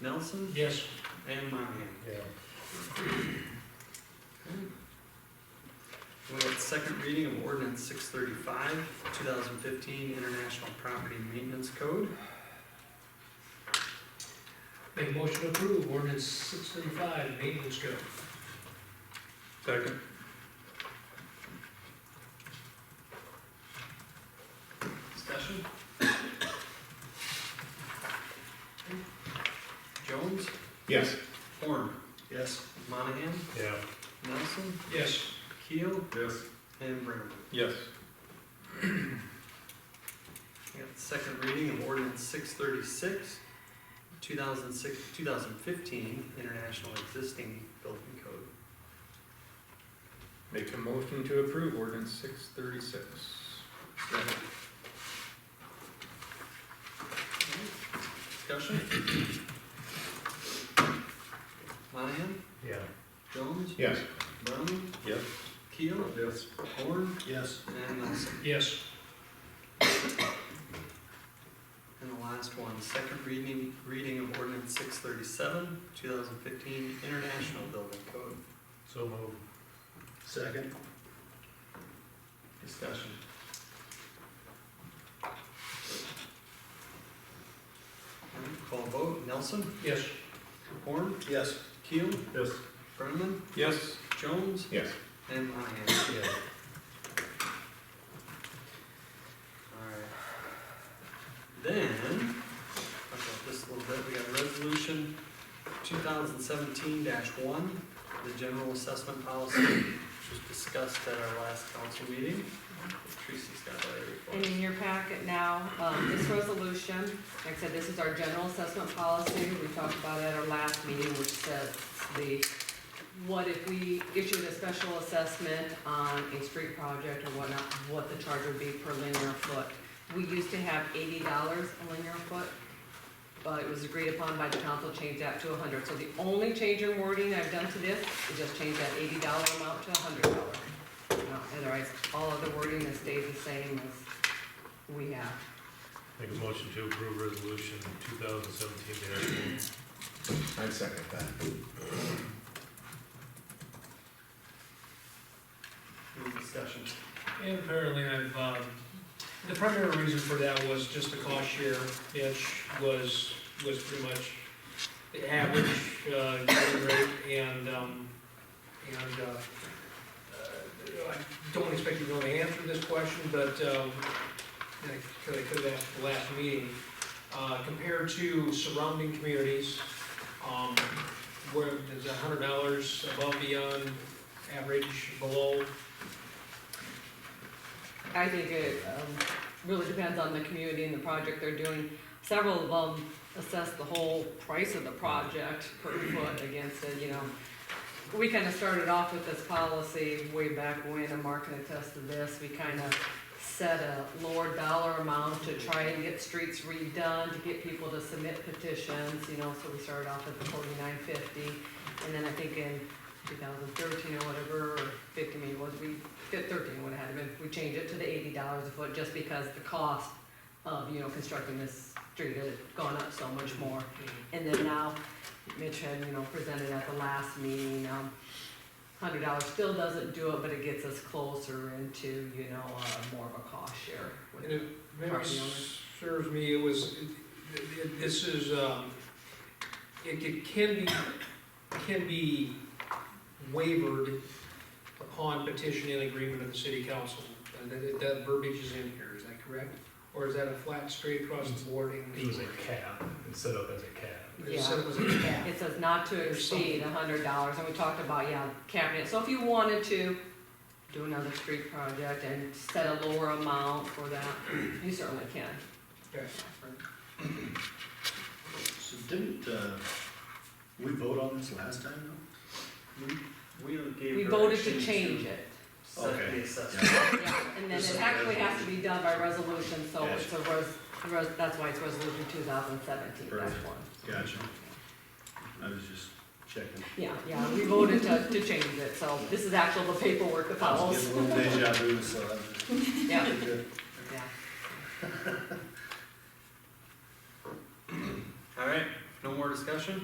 Nelson, Yes. and Monahan. Yeah. We have second reading of ordinance six thirty-five, two thousand fifteen, International Property Maintenance Code. Make a motion to approve ordinance six thirty-five, maintenance code. Second. Discussion? Jones, Yes. Horn, Yes. Monahan, Yeah. Nelson, Yes. Keel, Yes. and Brennaman. Yes. We got the second reading of ordinance six thirty-six, two thousand six, two thousand fifteen, International Existing Building Code. Make a motion to approve ordinance six thirty-six. Second. Discussion? Monahan, Yeah. Jones, Yes. Brennaman, Yes. Keel, Yes. Horn, Yes. and Nelson. Yes. And the last one, second reading, reading of ordinance six thirty-seven, two thousand fifteen, International Building Code. So moved. Second. Discussion. Alright, Call vote, Nelson, Yes. Horn, Yes. Keel, Yes. Brenneman, Yes. Jones, Yes. and Monahan. Yeah. Alright. Then, talk about this a little bit, we got resolution two thousand seventeen one, the general assessment policy, which was discussed at our last council meeting. Tracy's got that And report. in your packet now, um, this resolution, like I said, this is our general assessment policy, we talked about it at our last meeting, which says the, what if we issued a special assessment on a street project or whatnot, what the charge would be per linear foot. We used to have eighty dollars a linear foot, but it was agreed upon by the council, change that to a hundred. So the only change in wording I've done to this is just change that eighty dollar amount to a hundred dollar. Otherwise, all of the wording that stays the same as we have. Make a motion to approve resolution two thousand seventeen I'd second that. Any discussion? And apparently I've, um, the primary reason for that was just the cost share itch was, was pretty much the average, uh, yearly rate and, um, and, uh, uh, I don't expect you to know the answer to this question, but, um, and I could, I could have asked at the last meeting, uh, compared to surrounding communities, um, where there's a hundred dollars above beyond average, below, I think it um, really depends on the community and the project they're doing. Several of them assess the whole price of the project per foot against it, you know. We kind of started off with this policy way back when, and Mark can attest to this. We kind of set a lower dollar amount to try and get streets redone, to get people to submit petitions, you know, so we started off at the forty-nine fifty. And then I think in two thousand thirteen or whatever, or fifty maybe it was, we Fif- thirteen would have had, but we change it to the eighty dollars a foot, just because the cost of, you know, constructing this street had gone up so much more. And then now, Mitch had, you know, presented at the last meeting, um, hundred dollars still doesn't do it, but it gets us closer into, you know, uh, more of a cost share. with- And if memory Property owners. serves me, it was, it- it- this is, um, it it can be, can be wavered upon petition and agreement of the city council. And that, that verbiage is in here, is that correct? Or is that a flat straight across the board? and- It was a cab, it's set up as a cab. It said it was a cap. It says not to There's exceed a hundred dollars, and we talked about, yeah, cabinet, so if you wanted to do another street project and set a lower amount for that, you certainly can. Okay. So didn't, uh, we vote on this last time We gave. We voted to direction change it, Set the Okay. assessment. yeah, and then This it is- actually has to be done by resolution, so Yes. it's a res, res, that's why it's resolution two thousand seventeen, that's Perfect. one. though? Gotcha. I was just checking. Yeah, yeah, we voted to, to change it, so this is actually the paperwork that I was follows, getting a little deja vu, so I was just. yeah, yeah. Alright, no more more discussion?